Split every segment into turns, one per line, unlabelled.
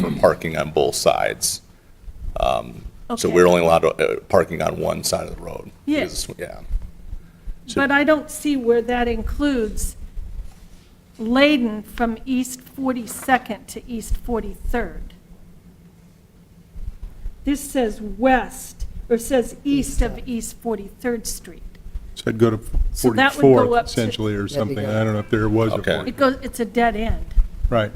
from parking on both sides. Um, So
Okay.
we're only allowed uh, parking on one side of the road.
Yeah.
Because it's- Yeah.
But I don't see where that includes Layden from East 42nd to East 43rd. This says west, or says east of East 43rd Street.
So I'd go to
So that would go
44th
up to-
essentially or something.
good.
I don't know if there was a
Okay.
40.
It goes, it's a dead end.
Right.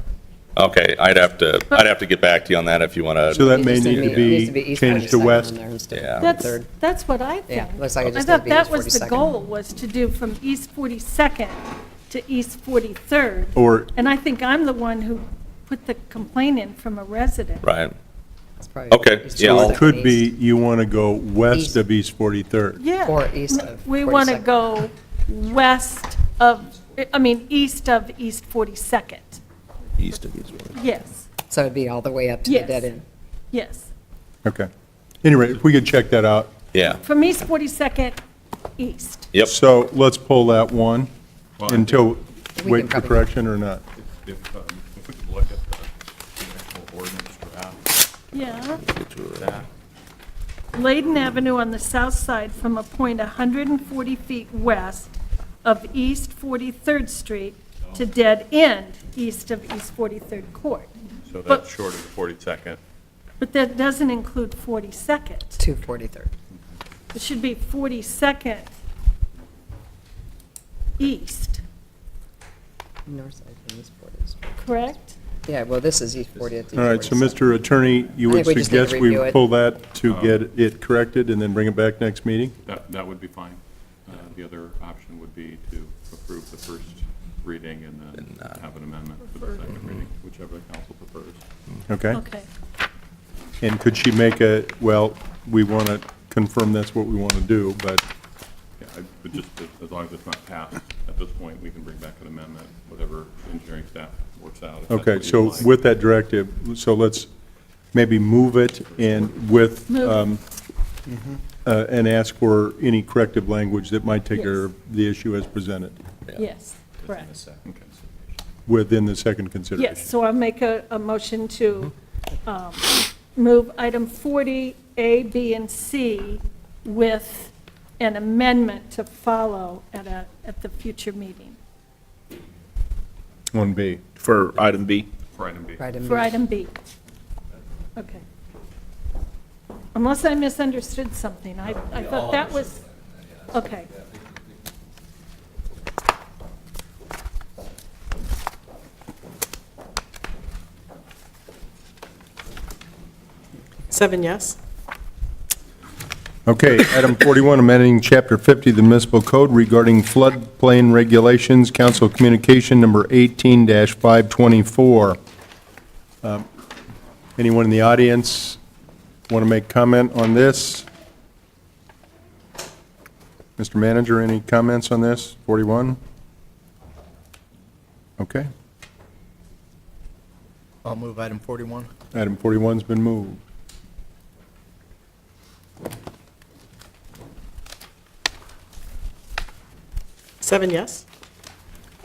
Okay, I'd have to, I'd have to get back to you on that if you want to.
So that may
It
need
needs
to
needs
be
East
changed to
42nd on
west.
there instead of
Yeah.
That's,
43rd.
that's what I
Oh, Yeah,
think.
looks like it
I
just needs to
thought
be
that
East
was the
42nd.
goal, was to do from East 42nd to East 43rd.
Or-
And I think I'm the one who put the complaint in from a resident.
Right.
It's probably
Okay,
East
yeah, I'll-
So
42nd
it could be,
east.
you want to go west
East.
of East 43rd.
Yeah.
Or east of
We want to
42nd.
go west of, I mean, east of East 42nd.
East of East.
Yes,
So it'd be all the way up to the
Yes.
dead end.
yes.
Okay. Anyway, if we could check that out.
Yeah,
From East 42nd east.
yep.
So let's pull that one
Well, I
until,
can
wait for
probably-
correction or not.
If, if, um, if we could look at the the actual ordinance draft,
Yeah.
that,
Layden Avenue on the south side from a point 140 feet west of East 43rd Street to dead end east of East 43rd Court.
so
But-
that's short of the 42nd.
But that doesn't include 42nd.
to 43rd.
It should be 42nd east,
North side from East 43rd.
corect?
Yeah, well, this is East 40th.
All right, so Mr. Attorney, you
I
would
think we just need to
suggest
review
we
it.
pull that to
Oh.
get it corrected and then bring it back next meeting?
That, that would be fine. Uh, The other option would be to approve the first reading and then have an amendment for the second reading, whichever the council prefers.
Okay?
Okay.
And could she make a, well, we want to confirm that's what we want to do, but,
Yeah, I- But just, as- as long as it's not passed, at this point, we can bring back an amendment, whatever engineering staff works out. if that's
okay,
what you'd
so
like.
with that directive, so let's maybe move it and with,
Move.
um, uh, and ask for any corrective language that might take care
Yes.
of the issue as presented
Yes, correct.
Okay.
within the second consideration.
Yes, so I'll make a, a motion to um, move item 40, A, B, and C with an amendment to follow at a, at the future meeting
On B.
for item B.
For item B.
Right,
for
and
item B. Okay. Unless I misunderstood something, I, I thought that was, okay.
Seven yes.
Okay, item 41, amending Chapter 50 of the municipal code regarding floodplain regulations, council communication number 18-524. Um, Anyone in the audience want to make comment on this? Mr. Manager, any comments on this, 41? Okay,
I'll move item 41.
item 41's been moved.
Seven yes.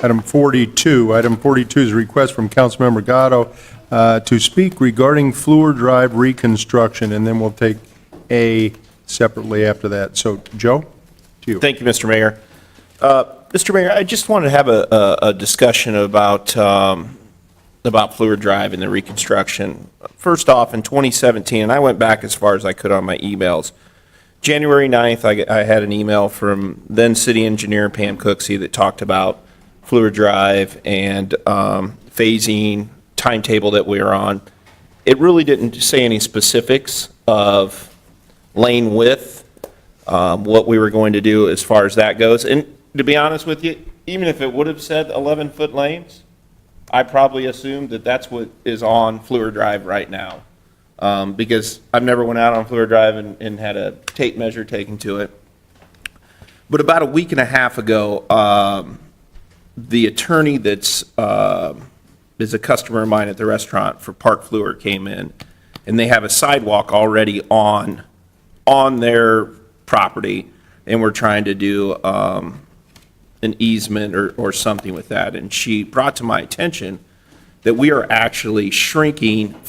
Item 42, item 42 is a request from Councilmember Gatto uh, to speak regarding Fluor Drive reconstruction, and then we'll take A separately after that. So, Joe, to you.
Thank you, Mr. Mayor. Uh, Mr. Mayor, I just wanted to have a, a- a discussion about, um, about Fluor Drive and the reconstruction. First off, in 2017, and I went back as far as I could on my emails, January 9th, I, I had an email from then-city engineer Pam Cooksey that talked about Fluor Drive and um, phasing, timetable that we were on. It really didn't say any specifics of lane width, um, what we were going to do as far as that goes. And to be honest with you, even if it would have said 11-foot lanes, I probably assumed that that's what is on Fluor Drive right now. Um, Because I've never went out on Fluor Drive and, and had a tape measure taken to it. But about a week and a half ago, um, the attorney that's, um, is a customer of mine at the restaurant for Park Fluor came in, and they have a sidewalk already on, on their property, and we're trying to do um, an easement or, or something with that. And she brought to my attention that we are actually shrinking